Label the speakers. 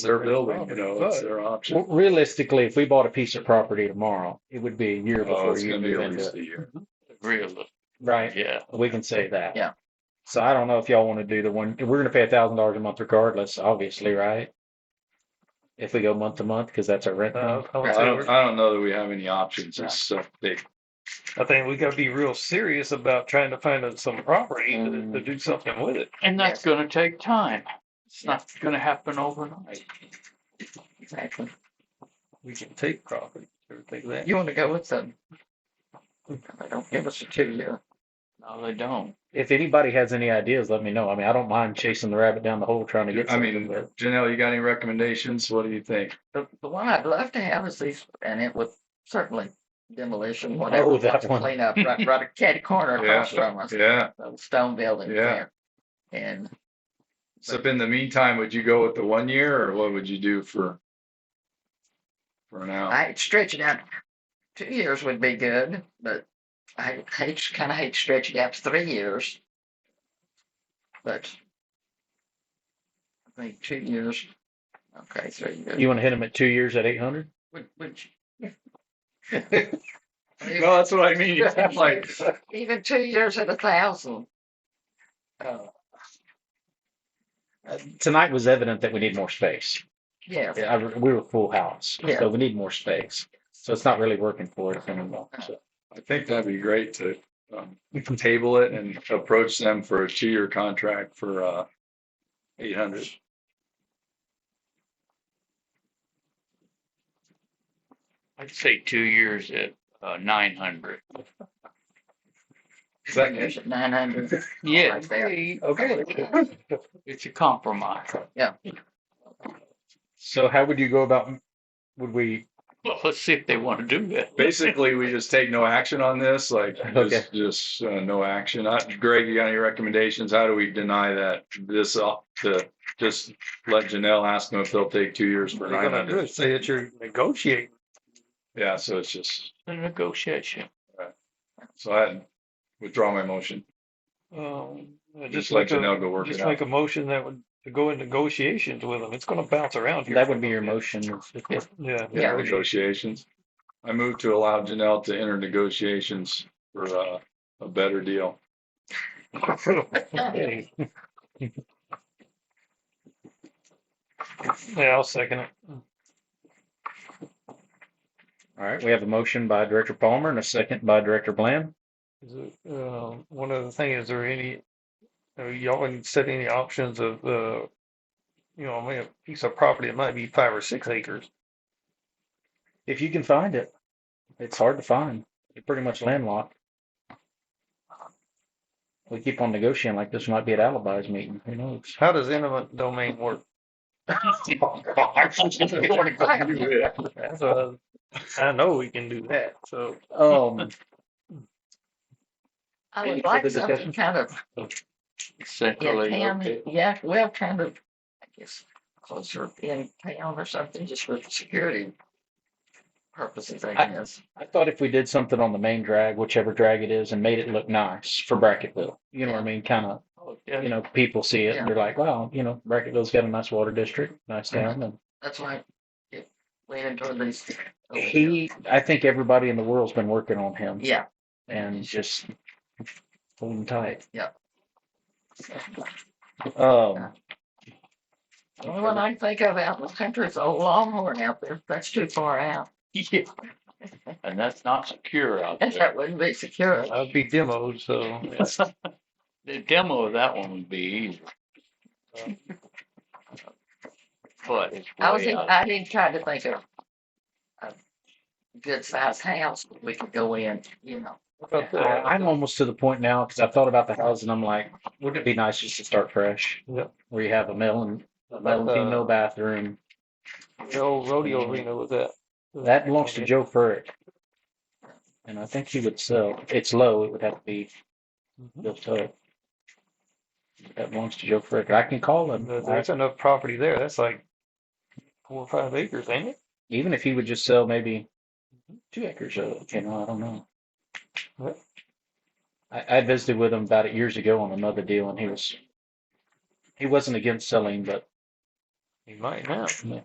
Speaker 1: their building, you know, it's their option.
Speaker 2: Well, Realistically, if we bought a piece of property tomorrow, it would be a year
Speaker 1: Oh,
Speaker 2: before
Speaker 1: it's
Speaker 2: you
Speaker 1: gonna be
Speaker 2: move
Speaker 1: at
Speaker 2: into
Speaker 1: least
Speaker 2: it.
Speaker 1: a year.
Speaker 3: Really?
Speaker 2: Right.
Speaker 3: Yeah.
Speaker 2: We can say that.
Speaker 4: Yeah.
Speaker 2: So I don't know if y'all want to do the one, we're going to pay a thousand dollars a month regardless, obviously, right? If we go month to month, because that's our rent.
Speaker 3: Uh,
Speaker 2: month.
Speaker 3: I would
Speaker 1: I
Speaker 3: say we're-
Speaker 1: don't, I don't know that we have any options except they,
Speaker 3: I think we gotta be real serious about trying to find us some property to, to do something with it.
Speaker 5: And that's gonna take time. It's not gonna happen overnight.
Speaker 4: Exactly.
Speaker 3: We can take property, everything that.
Speaker 4: You want to go with them? They don't give us a two-year.
Speaker 5: No, they don't.
Speaker 2: If anybody has any ideas, let me know. I mean, I don't mind chasing the rabbit down the hole trying to get
Speaker 1: I
Speaker 2: something,
Speaker 1: mean,
Speaker 2: but
Speaker 1: Janelle, you got any recommendations? What do you think?
Speaker 4: The, the one I'd love to have is these, and it would certainly demolition,
Speaker 2: Oh,
Speaker 4: whatever,
Speaker 2: that
Speaker 4: lots of
Speaker 2: one.
Speaker 4: cleanup, right, right at Cat Corner across from us,
Speaker 1: Yeah.
Speaker 4: those stone buildings
Speaker 1: Yeah.
Speaker 4: there. And
Speaker 1: So in the meantime, would you go with the one year or what would you do for? For now?
Speaker 4: I stretch it out, two years would be good, but I hate, kind of hate stretching out to three years. But I think two years, okay, three years.
Speaker 2: you want to hit them at two years at eight hundred?
Speaker 4: Would, would you-
Speaker 1: No, that's what I mean. Like,
Speaker 4: even two years at a thousand. Uh,
Speaker 2: Uh, Tonight was evident that we need more space.
Speaker 4: yes.
Speaker 2: I, we were full house,
Speaker 4: Yeah.
Speaker 2: so we need more space. So it's not really working for us anymore. So-
Speaker 1: I think that'd be great to um, table it and approach them for a two-year contract for uh eight hundred.
Speaker 5: I'd say two years at, uh, nine hundred.
Speaker 1: Second,
Speaker 4: Nine hundred.
Speaker 5: Yeah,
Speaker 4: Right there.
Speaker 5: okay. It's a compromise.
Speaker 2: So how would you go about, would we,
Speaker 5: Well, let's see if they wanna do that.
Speaker 1: basically, we just take no action on this, like
Speaker 2: Okay.
Speaker 1: just just uh, no action. Uh, Greg, you got any recommendations? How do we deny that this up to just let Janelle ask them if they'll take two years for
Speaker 3: We're
Speaker 1: nine
Speaker 3: gonna do
Speaker 1: hundred?
Speaker 3: it, say that you're negotiating.
Speaker 1: Yeah, so it's just,
Speaker 5: The negotiation.
Speaker 1: so I withdraw my motion.
Speaker 3: Um, I
Speaker 1: Just
Speaker 3: just
Speaker 1: let
Speaker 3: like
Speaker 1: Janelle
Speaker 3: a,
Speaker 1: go work it
Speaker 3: just make
Speaker 1: out.
Speaker 3: a motion that would, to go in negotiations with them. It's gonna bounce around here.
Speaker 2: that would be your motion.
Speaker 3: Yeah.
Speaker 4: Yeah.
Speaker 1: Negotiations. I move to allow Janelle to enter negotiations for uh, a better deal.
Speaker 3: Yeah, I'll second it.
Speaker 2: All right, we have a motion by Director Palmer and a second by Director Bland.
Speaker 3: Is it, uh, one other thing, is there any, uh, y'all can set any options of, uh, you know, I mean, a piece of property, it might be five or six acres.
Speaker 2: If you can find it, it's hard to find. You're pretty much landlocked. We keep on negotiating like this might be at Alibi's meeting. Who knows?
Speaker 3: How does eminent domain work? That's what I I know we can do that, so.
Speaker 2: Um,
Speaker 4: I
Speaker 2: Any
Speaker 4: would like
Speaker 2: further
Speaker 4: something
Speaker 2: discussion?
Speaker 4: kind of,
Speaker 5: Centrally.
Speaker 4: in town,
Speaker 5: located.
Speaker 4: yeah, well, kind of, I guess, closer in town or something, just for security purposes, I
Speaker 2: I-
Speaker 4: guess.
Speaker 2: I thought if we did something on the main drag, whichever drag it is, and made it look nice for Bracketville, you know what I mean? Kind of,
Speaker 5: Oh,
Speaker 2: you
Speaker 5: yeah.
Speaker 2: know, people see it and they're like, wow, you know, Bracketville's got a nice water district, nice town. And
Speaker 4: That's why it leaning toward these.
Speaker 2: he, I think everybody in the world's been working on him.
Speaker 4: Yeah.
Speaker 2: and just hold them tight.
Speaker 4: Yep.
Speaker 2: Um,
Speaker 4: The only one I think of out in the country is old Longhorn out there. That's too far out.
Speaker 5: Yeah. And that's not secure out there.
Speaker 4: That wouldn't be secure.
Speaker 3: That'd be demoed, so.
Speaker 5: The demo of that one would be easy. But it's
Speaker 4: I was,
Speaker 5: way
Speaker 4: in-
Speaker 2: uh,
Speaker 5: out.
Speaker 4: I didn't try to think of a good sized house that we could go in, you know.
Speaker 2: I- I'm almost to the point now because I thought about the house and I'm like, wouldn't it be nice just to start fresh?
Speaker 3: Yep.
Speaker 2: Where you have a mill and a
Speaker 3: About the-
Speaker 2: mill bathroom.
Speaker 3: The old rodeo arena with Mm-hmm. that.
Speaker 2: That belongs to Joe Furrick. And I think he would sell, it's low, it would have to be
Speaker 3: Mm-hmm.
Speaker 2: built up. uh, That belongs to Joe Furrick. I can call him.
Speaker 3: There- There's enough property there. That's like four or five acres, ain't it?
Speaker 2: Even if he would just sell maybe two acres of it, you know, I don't know.
Speaker 3: What?
Speaker 2: I, I visited with him about it years ago on another deal and he was, he wasn't against selling, but
Speaker 6: He might now.
Speaker 3: Yeah.